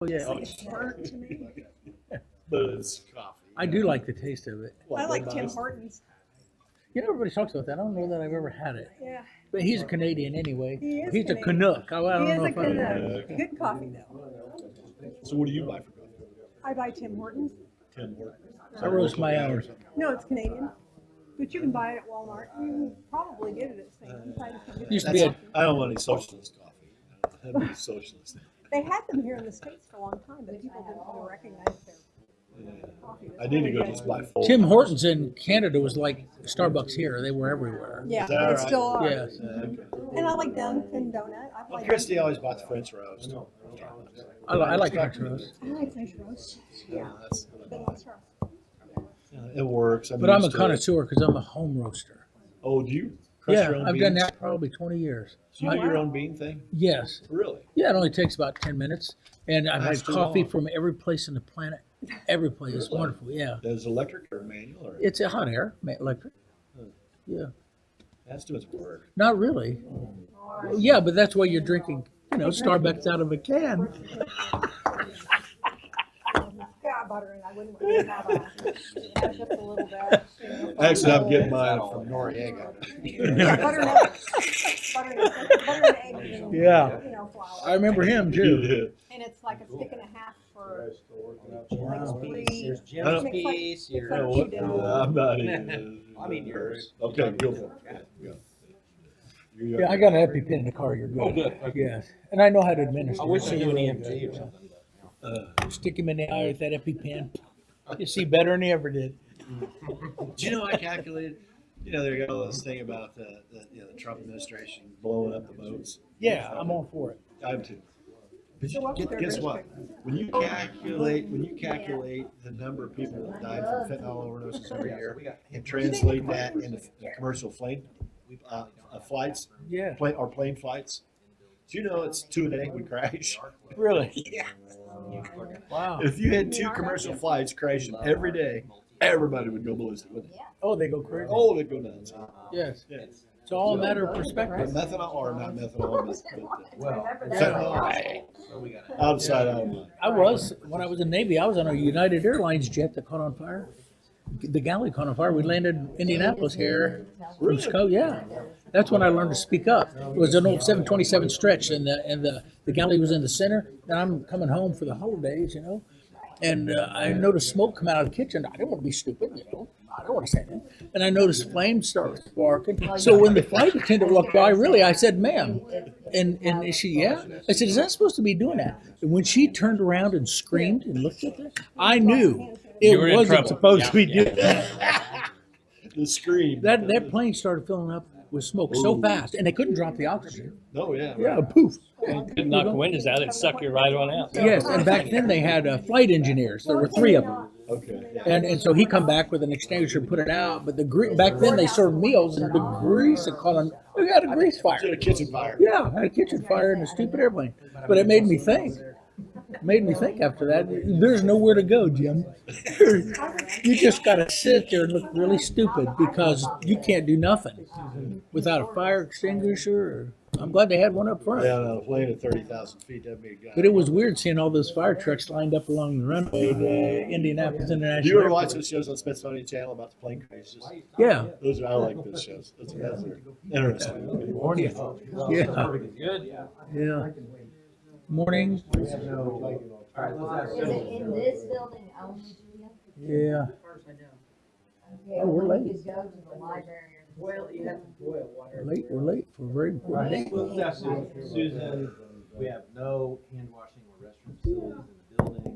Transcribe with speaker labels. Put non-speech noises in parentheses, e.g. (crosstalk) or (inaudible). Speaker 1: Well, yeah,
Speaker 2: It's
Speaker 1: oh,
Speaker 2: like tart to me.
Speaker 3: but it's coffee.
Speaker 1: I do like the taste of it.
Speaker 3: Well,
Speaker 2: I like
Speaker 3: but
Speaker 2: Tim
Speaker 3: it's-
Speaker 2: Hortons.
Speaker 1: You know, everybody talks about that. I don't know that I've ever had it.
Speaker 2: Yeah,
Speaker 1: But he's a Canadian anyway.
Speaker 2: He is
Speaker 1: He's a
Speaker 2: Canadian.
Speaker 1: Canuck. I, I
Speaker 2: he
Speaker 1: don't
Speaker 2: is
Speaker 1: know
Speaker 2: a
Speaker 1: if I-
Speaker 2: good,
Speaker 3: Yeah.
Speaker 2: uh, good coffee though.
Speaker 3: So what do you buy for coffee?
Speaker 2: I buy Tim Hortons.
Speaker 3: Tim Hortons.
Speaker 1: I roast my own.
Speaker 2: No, it's Canadian, but you can buy it at Walmart. You can probably get it at Sam's. I just didn't
Speaker 1: Used to
Speaker 2: get
Speaker 1: be
Speaker 2: it.
Speaker 1: a-
Speaker 3: That's- I don't want any socialist coffee. I don't have any socialist.
Speaker 2: They had them here in the States for a long time, but people didn't really recognize their coffee.
Speaker 3: I need to go just buy full.
Speaker 1: Tim Hortons in Canada was like Starbucks here. They were everywhere.
Speaker 2: Yeah,
Speaker 3: Is that
Speaker 2: they
Speaker 3: right?
Speaker 2: still are.
Speaker 1: Yes.
Speaker 3: Yeah, Uh, okay.
Speaker 2: And I like Dunkin' Donut. I
Speaker 3: Well,
Speaker 2: like.
Speaker 3: Christy always bought the French roast.
Speaker 1: I, li- I like French roast.
Speaker 2: I like French roast.
Speaker 3: Yeah, that's-
Speaker 2: But it's roast.
Speaker 3: yeah, It works.
Speaker 1: But I'm a
Speaker 3: used to it.
Speaker 1: connoisseur because I'm a home roaster.
Speaker 3: Oh, do you? crush
Speaker 1: Yeah,
Speaker 3: your own
Speaker 1: I've done
Speaker 3: beans?
Speaker 1: that probably 20 years.
Speaker 3: Do you do your own bean thing?
Speaker 1: Yes.
Speaker 3: Really?
Speaker 1: Yeah, it only takes about 10 minutes. And I've
Speaker 3: That's
Speaker 1: had
Speaker 3: too
Speaker 1: coffee
Speaker 3: long.
Speaker 1: from every place on the
Speaker 2: (laughs)
Speaker 1: planet. Every place. It's
Speaker 3: Really?
Speaker 1: wonderful. Yeah.
Speaker 3: Does electric or manual or?
Speaker 1: It's a hot air, ma- electric.
Speaker 3: Hmm.
Speaker 1: Yeah.
Speaker 3: That's too much work.
Speaker 1: Not really. Yeah, but that's why you're drinking, you know, Starbucks out of a can.
Speaker 2: Yeah, I butter and I wouldn't really have a, just a little bit. you know.
Speaker 3: Actually, I'm getting mine from Noriega.
Speaker 2: Yeah, butter and egg. Butter and egg, butter and egg. and,
Speaker 1: Yeah.
Speaker 2: You know,
Speaker 1: I
Speaker 2: flour.
Speaker 1: remember him too.
Speaker 2: And it's like a stick and a half for,
Speaker 4: Brown's
Speaker 2: Three.
Speaker 4: Bees, there's
Speaker 3: I
Speaker 4: Jim's
Speaker 3: don't-
Speaker 4: Bees, your-
Speaker 2: Yeah,
Speaker 3: what? I'm not (laughs) even.
Speaker 4: I mean yours.
Speaker 3: Okay, go for it. Yeah, yeah.
Speaker 1: Yeah, I got a happy pin in the car. You're good. Yes. And I know how to administer.
Speaker 4: Oh, I
Speaker 1: it,
Speaker 4: wish
Speaker 1: so
Speaker 4: I knew
Speaker 1: you're
Speaker 4: an
Speaker 1: really
Speaker 4: EMT or
Speaker 1: good.
Speaker 4: something.
Speaker 3: Uh,
Speaker 1: Stick him in the eye with that EpiPen. You see better than he ever did.
Speaker 3: Do you know I calculated? You know, they got all this thing about the, the, you know, the Trump administration blowing up the boats.
Speaker 1: Yeah, I'm all for it.
Speaker 3: I'm too. But
Speaker 2: So
Speaker 3: you,
Speaker 2: what
Speaker 3: get-
Speaker 2: were
Speaker 3: guess
Speaker 2: their
Speaker 3: what? When you calculate, when you calculate the number of people that die from fentanyl overdoses every year and translate that into commercial plane, uh, uh, flights,
Speaker 1: Yeah,
Speaker 3: plane, or plane flights, do you know it's two a day would (laughs) crash?
Speaker 1: really.
Speaker 4: (laughs)
Speaker 3: Yeah.
Speaker 1: Wow.
Speaker 3: If you had two commercial flights crashing every day, everybody would go ballistic, wouldn't they?
Speaker 1: Oh, they go crazy.
Speaker 3: All of it go nuts.
Speaker 1: Yes.
Speaker 3: Yeah.
Speaker 1: It's all a matter of
Speaker 3: But
Speaker 1: perspective.
Speaker 3: methanol, or not methanol, but- but
Speaker 4: Well,
Speaker 3: fentanyl,
Speaker 4: so we got
Speaker 3: outside, I do
Speaker 1: I was, when I was in Navy, I was on a United Airlines jet that caught on fire. The galley caught on fire. We landed in Indianapolis here. from Chicago, yeah. That's when I learned to speak up. It was an old seven twenty-seven stretch and the, and the, the galley was in the center. And I'm coming home for the holidays, you know? And uh, I noticed smoke come out of the kitchen. I didn't want to be stupid, you know? I don't want to say that. And I noticed flames start sparking. So when the flight attendant walked by, really, I said, ma'am. And, and she, yeah. I said, is that supposed to be doing that? And when she turned around and screamed and looked at me, I knew it
Speaker 5: You were in
Speaker 1: wasn't
Speaker 5: trouble.
Speaker 1: supposed to be
Speaker 5: Yeah,
Speaker 1: doing that.
Speaker 3: The scream.
Speaker 1: That, that plane started filling up with smoke so fast and they couldn't drop the oxygen.
Speaker 3: Oh, yeah.
Speaker 1: Yeah, poof.
Speaker 5: Could knock the windows out, it'd suck you right on out.
Speaker 1: Yes, and back then they had uh, flight engineers. There were three of them,
Speaker 3: Okay. yeah.
Speaker 1: and and so he come back with an extinguisher, put it out. But the gre- back then they served meals, and the grease had caught on. We had a grease fire.
Speaker 3: Should have kitchen fire.
Speaker 1: Yeah, had a kitchen fire in a stupid airplane. But it made me think. Made me think after that. There's nowhere to go, Jim. (laughs) you just got to sit there and look really stupid because you can't do nothing without a fire extinguisher. Or, I'm glad they had one up front.
Speaker 3: Yeah, no, plane at thirty thousand feet, that'd be a guy.
Speaker 1: But it was weird seeing all those fire trucks lined up along the runway to Indianapolis
Speaker 3: Do
Speaker 1: International.
Speaker 3: you ever watch
Speaker 1: Airport.
Speaker 3: those shows on Smithsonian Channel about the plane crashes?
Speaker 1: Yeah,
Speaker 3: Those are, I like those shows. Those are those are interesting.
Speaker 1: yeah,
Speaker 5: Good.
Speaker 1: yeah. Morning,
Speaker 6: Is it in this building only, Julia?
Speaker 1: yeah.
Speaker 6: Okay,
Speaker 1: Oh, we're
Speaker 6: we
Speaker 1: late.
Speaker 6: could Go to the library.
Speaker 4: Boil, you have to boil water.
Speaker 1: We're late, we're late for a very important
Speaker 4: Right,
Speaker 1: day.
Speaker 4: well, that's it. Susan, we have no hand washing or restroom facilities in the building.